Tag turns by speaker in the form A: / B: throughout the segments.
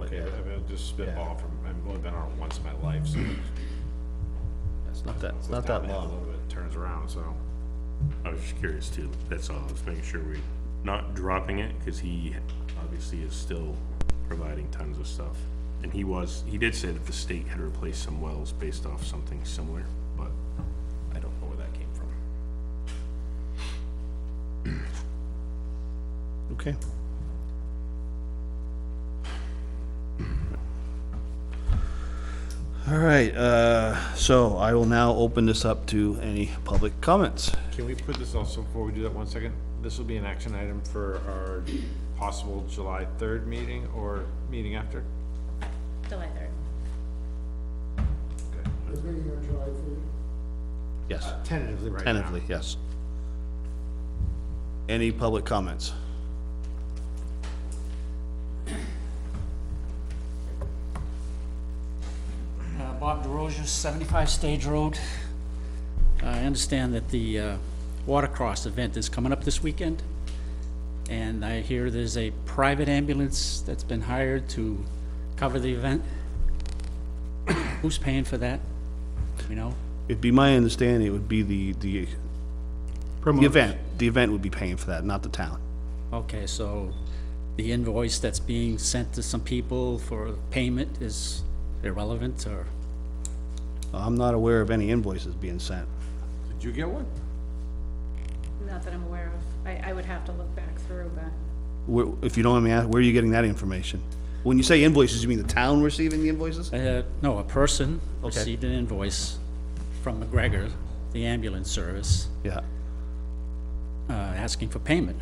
A: uh,
B: just spitball from, I've only been on it once in my life, so.
A: It's not that, it's
B: Looked
A: not
B: down
A: that
B: there A
A: long.
B: little bit, turns around, so.
C: I was just curious too, that's all, I was making sure we not dropping it, cause he obviously is still providing tons of stuff. And he was, he did say that the state had replaced some wells based off something similar, but I don't know where that came from.
A: Okay. All right, uh, so I will now open this up to any public comments.
B: Can we put this also, before we do that, one second? This will be an action item for our possible July third meeting or meeting after?
D: July third.
B: Okay.
E: Is meeting on July third?
A: Yes,
B: Tentatively right now.
A: tentatively, yes. Any public comments?
F: Uh, Bob DeRosa, 75 Stage Road. I understand that the uh, Watercross event is coming up this weekend, and I hear there's a private ambulance that's been hired to cover the event. Who's paying for that? You know?
A: It'd be my understanding it would be the, the, the event, the event would be paying for that, not the town.
F: Okay, so the invoice that's being sent to some people for payment is irrelevant, or?
A: I'm not aware of any invoices being sent.
B: Did you get one?
D: Not that I'm aware of. I, I would have to look back through, but
A: Where, if you don't mind me asking, where are you getting that information? When you say invoices, you mean the town receiving the invoices?
F: Uh, no, a person received an invoice from McGregor, the ambulance service,
A: Yeah,
F: uh, asking for payment.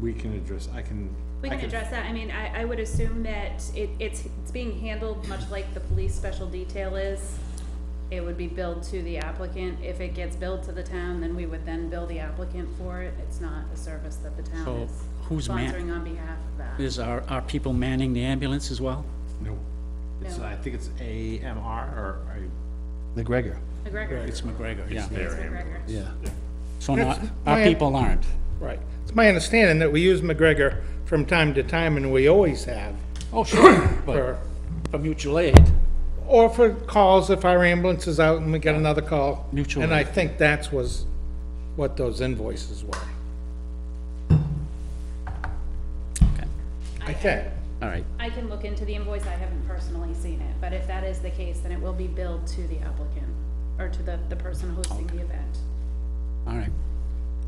B: We can address, I can,
D: we can address that. I mean, I, I would assume that it, it's, it's being handled much like the police special detail is. It would be billed to the applicant. If it gets billed to the town, then we would then bill the applicant for it. It's not a service that the
F: So
D: town is
F: who's man-
D: sponsoring on behalf of that.
F: Is, are, are people manning the ambulance as well?
B: no. It's,
D: No.
B: I think it's AMR or I,
A: McGregor,
D: McGregor.
F: It's McGregor, yeah.
D: It's McGregor.
A: yeah.
F: So not,
G: It's
F: our
G: my-
F: people aren't.
G: Right. It's my understanding that we use McGregor from time to time, and we always have,
F: Oh, sure, but
G: for,
F: for mutual aid,
G: or for calls if our ambulance is out and we get another call.
F: Mutual
G: And I
F: aid.
G: think that's was what those invoices were.
F: okay,
G: Okay,
F: all right.
D: I can look into the invoice. I haven't personally seen it, but if that is the case, then it will be billed to the applicant or to the, the person hosting the event.
F: All right,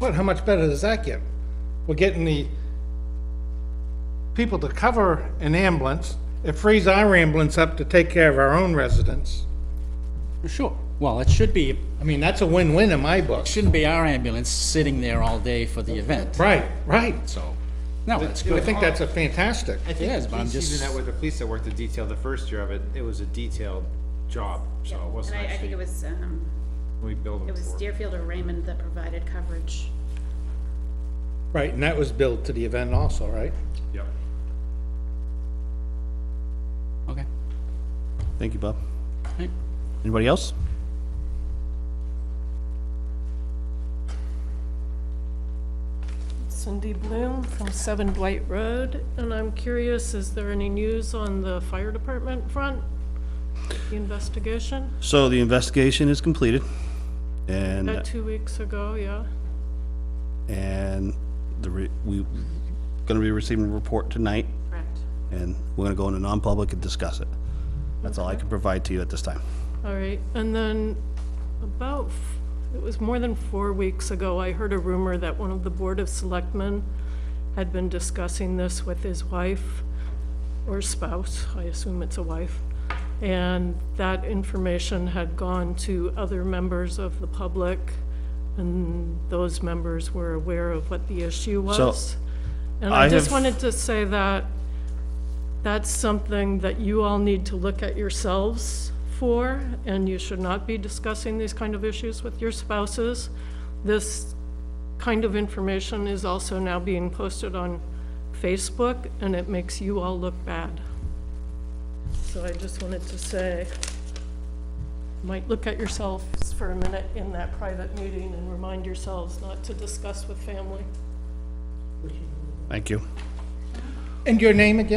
G: but how much better does that get? We're getting the people to cover an ambulance. It frees our ambulance up to take care of our own residents.
F: sure. Well, it should be,
G: I mean, that's a win-win in my book.
F: shouldn't be our ambulance sitting there all day for the event,
G: Right, right.
F: so, no, that's
G: I
F: good.
G: think that's a fantastic.
B: I
F: Yes,
B: think
F: but I'm
B: he's even
F: just-
B: that with the police that worked the detail the first year of it, it was a detailed job, so it
D: And
B: wasn't
D: I, I think
B: actually,
D: it was, um,
B: we billed them
D: it was
B: for it.
D: Deerfield or Raymond that provided coverage.
G: Right, and that was billed to the event also, right?
B: Yep.
F: Okay,
A: Thank you, Bob.
F: all right.
A: Anybody else?
H: Cindy Bloom from Seven Blight Road, and I'm curious, is there any news on the fire department front? The investigation,
A: So the investigation is completed,
H: about
A: and,
H: two weeks ago, yeah?
A: and the, re- we, gonna be receiving a report tonight,
H: Correct.
A: and we're gonna go into non-public and discuss it. That's all I can provide to you at this time.
H: All right, and then about, f- it was more than four weeks ago, I heard a rumor that one of the Board of Selectmen had been discussing this with his wife or spouse, I assume it's a wife, and that information had gone to other members of the public, and those members were aware of what the issue
A: So,
H: was. And
A: I
H: I just
A: have-
H: wanted to say that that's something that you all need to look at yourselves for, and you should not be discussing these kind of issues with your spouses. This kind of information is also now being posted on Facebook, and it makes you all look bad. So I just wanted to say, might look at yourselves for a minute in that private meeting and remind yourselves not to discuss with family.
A: Thank you.
G: And your name again?